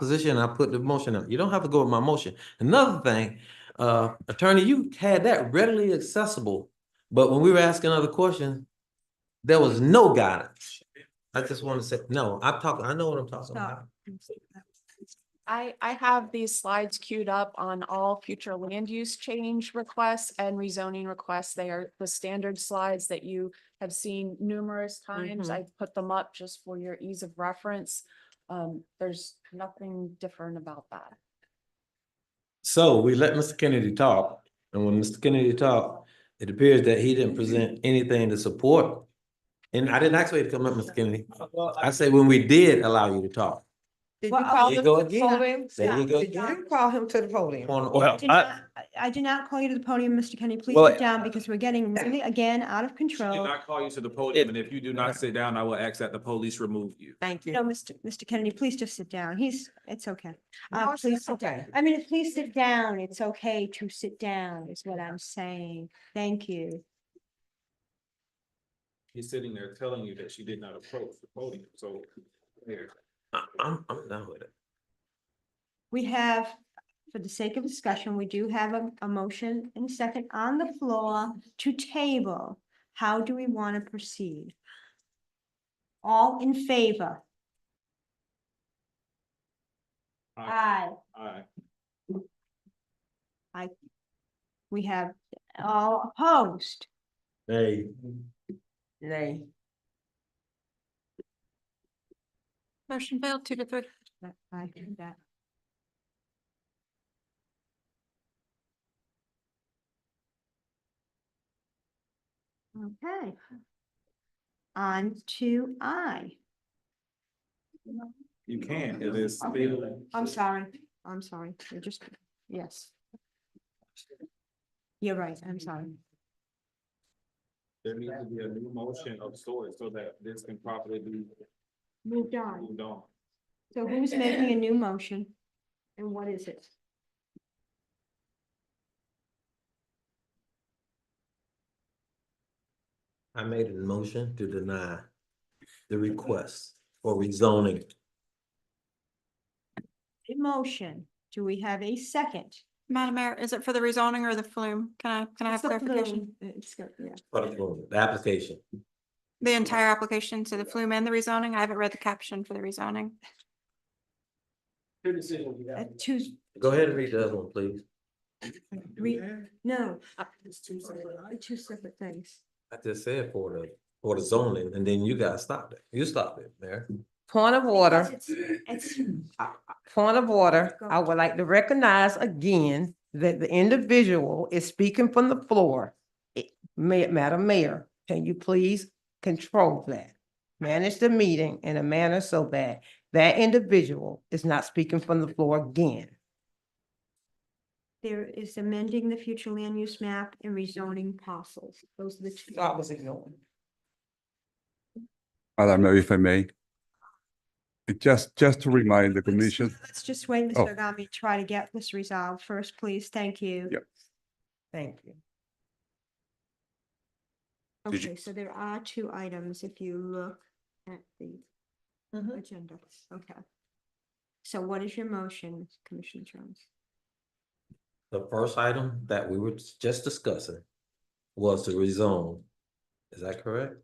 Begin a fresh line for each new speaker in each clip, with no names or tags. position, I put the motion up. You don't have to go with my motion. Another thing, uh, attorney, you had that readily accessible, but when we were asking other questions, there was no guidance. I just want to say, no, I'm talking, I know what I'm talking about.
I, I have these slides queued up on all future land use change requests and rezoning requests. They are the standard slides that you have seen numerous times.
Mhm.
I've put them up just for your ease of reference. Um, there's nothing different about that.
So we let Mr. Kennedy talk, and when Mr. Kennedy talked, it appears that he didn't present anything to support. And I didn't ask for you to come up, Mr. Kennedy. I say when we did allow you to talk.
Did you
Well,
call
There you
him
go
to the
again.
podium?
There you
Stop.
go.
Did you call him to the podium?
On-
Well,
did
I,
not- I did not call you to the podium, Mr. Kenny. Please
Well,
sit down because we're getting really, again, out of
Did
control.
not call you to the podium, and if you do not sit down, I will ask that the police remove you.
Thank you.
No, Mr. Mr. Kennedy, please just sit down. He's, it's okay. Uh,
No, it's
please
not
sit down.
okay.
I mean, please sit down. It's okay to sit down is what I'm saying. Thank you.
He's sitting there telling you that she did not approach the podium, so. there.
I- I'm, I'm done with it.
We have, for the sake of discussion, we do have a, a motion and a second on the floor to table. How do we want to proceed? All in favor?
Aye.
Aye.
Aye.
We have all opposed.
Hey.
Nay.
Motion failed, two to three.
That- I heard that. Okay. On to I.
You can, it is. still-
I'm sorry, I'm sorry, I just, yes. You're right, I'm sorry.
There needs to be a new motion of sorts so that this can properly be
Moved on.
moved on.
So who's making a new motion? And what is it?
I made a motion to deny the request for rezoning.
A motion. Do we have a second?
Madam Mayor, is it for the rezoning or the flume? Can I, can I
It's
have
a
clarification?
flume. uh, It's go- yeah.
for the approval, The application.
The entire application, so the flume and the rezoning? I haven't read the caption for the rezoning.
Uh, Two,
Go ahead and read the other one, please.
Re- no. uh, Two separate things.
I just said for the, for the zoning, and then you guys stopped it. You stopped it, Mayor.
Point of order.
Because It's it's-
Point of order,
Go.
I would like to recognize again that the individual is speaking from the floor. It- Ma- Madam Mayor, can you please control that? Manage the meeting in a manner so that that individual is not speaking from the floor again.
there is amending the future land use map and rezoning parcels. Those are the two.
I was ignoring.
I don't know if I may. It Just, just to remind the
Let's-
commission,
Let's just wait,
Oh.
Mr. Agami, try to get this resolved first, please. Thank you.
Yep.
Thank you.
Did you-
Okay, so there are two items if you look at the
Mhm.
agenda. Okay. So what is your motion, Commissioner Jones?
The first item that we were just discussing was to rezone. Is that correct?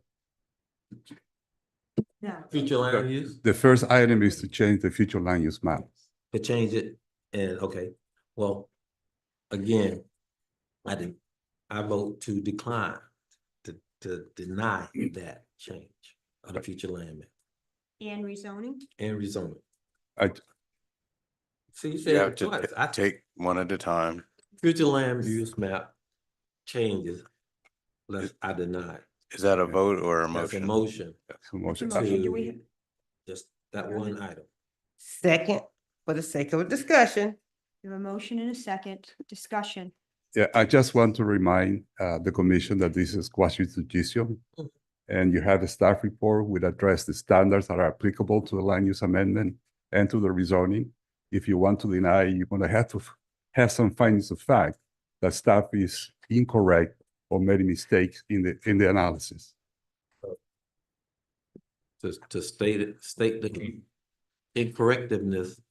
No.
Future land use,
the first item is to change the future land use map.
to change it, and, okay, well, again, I did, I vote to decline, to, to deny that change of the future land map
And rezoning?
and rezoning.
I-
See, you said
You have
it
to
twice.
ta-
I take
take one at a time.
future land use map changes, unless I deny. it.
Is that a vote or a
That's a
motion?
motion
So motion-
Motion, do
to
we have-
just that one item.
Second, for the sake of discussion,
We have a motion and a second discussion.
Yeah, I just want to remind uh, the commission that this is quasi judicial.
Mhm.
And you have a staff report which address the standards that are applicable to the land use amendment and to the rezoning. If you want to deny, you're gonna have to f- have some findings of fact that staff is incorrect or made mistakes in the, in the analysis.
Mm-hmm.
To, to state it, state the incorrectiveness